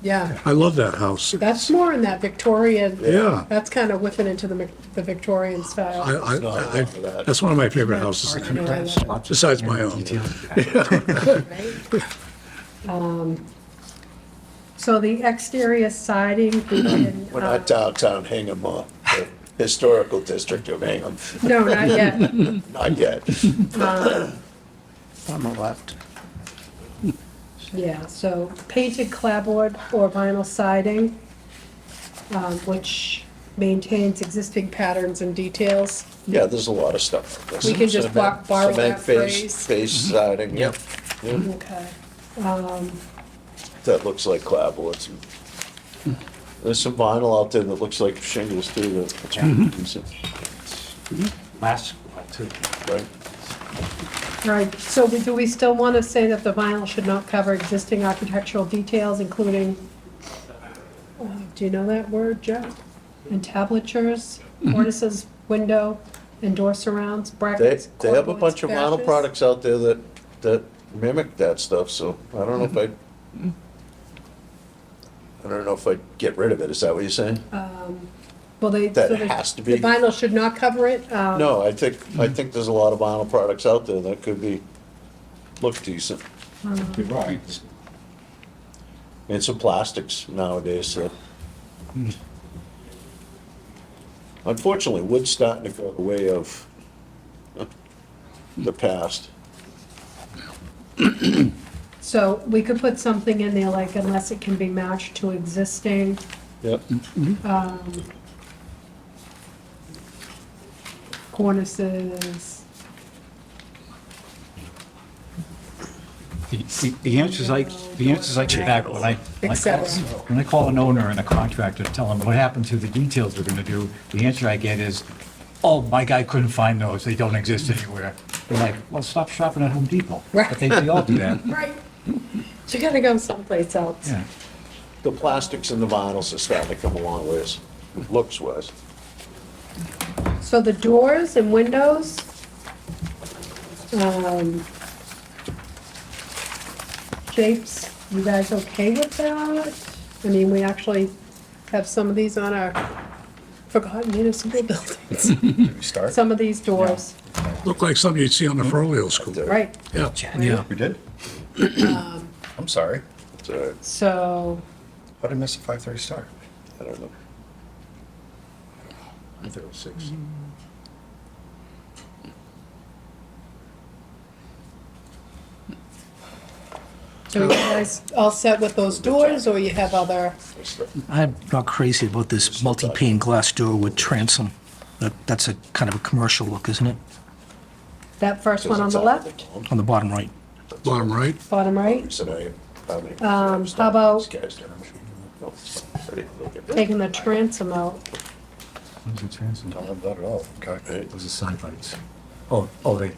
yeah. I love that house. That's more in that Victorian. Yeah. That's kind of whipping into the Mc- the Victorian I, style. I, not Uh-huh. I- wrong with that. that's one of my favorite houses, You know, I love it, besides my own. right? Um, So the exterior siding, we can, We're uh, not downtown Hingham, uh, the historical district of Hingham, no, not yet. not yet. Uh-huh. On the left. Yeah, so painted clapboard or vinyl siding, um, which maintains existing patterns and details. Yeah, there's a lot of stuff like this. We can just Cement- bo- borrow cement that face- phrase. Face Mm-hmm. siding, yep, Okay. Um, that looks like clapboards. There's some vinyl out there that looks like shingles too, that- Mm-hmm. that's, Last one, too. right? Right, so we- do we still want to say that the vinyl should not cover existing architectural details, including, uh, do you know that word, Joe? Entablatures, cornices, window, and door surrounds, They, brackets, they have a cordwood, bunch of vinyl stashes. products out there that, that mimic that stuff, so I don't know if I'd, I don't know if I'd get rid of it, is that what you're saying? Well, they. that so the- has to be- The vinyl should not cover it. um, No, I think, I think there's a lot of vinyl products out there that could be, look decent. You're right. And some plastics nowadays, so. Unfortunately, wood's starting to go the way of the past. So we could put something in there like unless it can be matched to existing, Yep. um, cornices, The- The the answer's like, the answer's like the back, when I, when I call- Etc. when I call an owner and a contractor, to tell them what happened to the details we're gonna do, the answer I get is, oh, my guy couldn't find those, they don't exist anywhere. They're like, well, stop shopping at Home Depot. But they, they all do that, Right. You gotta go someplace else. yeah. The plastics and the vinyls are starting to come a long ways, looks wise. So the doors and windows, um, shapes, you guys okay with that? I mean, we actually have some of these on our forgotten municipal buildings, We start? some of these doors, Looked like something you'd see on the Ferrolio school. right? Yeah. Yeah. We did? I'm sorry. It's, uh, So, How did I miss a five-thirty start? I don't know. I thought it was six. so you guys all set with those doors, or you have other, It's the- I'm not crazy about this multi-pane glass door with transom. That, that's a kind of a commercial look, isn't it? that first one on the left, On the bottom right. Bottom right, bottom right? It's an I- I mean, Um, it's how not- about- it's guys that I'm sure you know. It's- I didn't look at that. Taking the transom out, Not about it all, okay. Those are side lights. Oh, oh, they,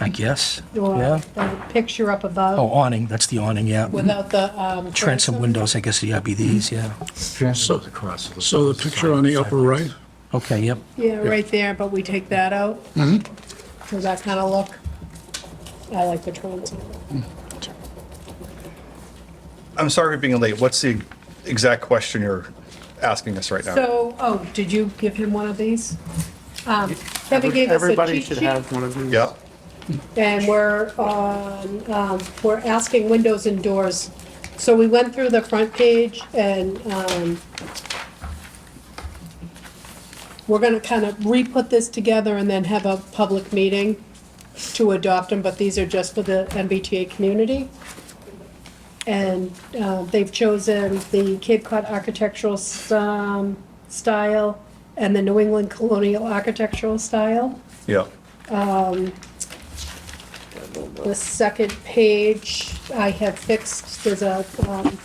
I guess. or Yeah. the picture up above. Oh, awning, that's the awning, yeah. Without the, um. Transom windows, I guess, yeah, be these, yeah. transoms across. so the picture on the upper right, Okay, yep. Yeah, right there, but we take that out. For that kind of look. I like the transom. I'm sorry for being late. What's the exact question you're asking us right now? So, oh, did you give him one of these? Um, Kevin gave us a Everybody cheat should sheet, have one of these. yeah. and we're on, um, we're asking windows and doors. So we went through the front page and, um, we're gonna kind of re-put this together and then have a public meeting to adopt them, but these are just for the MBTA community. And uh, they've chosen the Cape Cod architectural s- um, style and the New England colonial architectural style. Yeah. The second page, I have fixed, there's a um,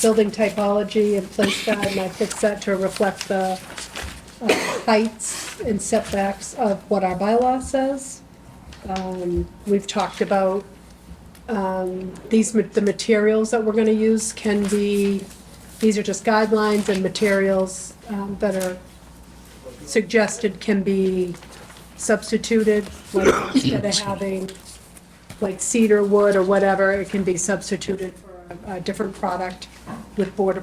building typology and place guide, and I fixed that to reflect the uh, heights and setbacks of what our bylaw says. Um, We've talked about um, these, ma- the materials that we're going to use can be, these are just guidelines and materials um, that are suggested can be substituted, like instead of having like cedar wood or whatever, it can be substituted for a a different product with Board of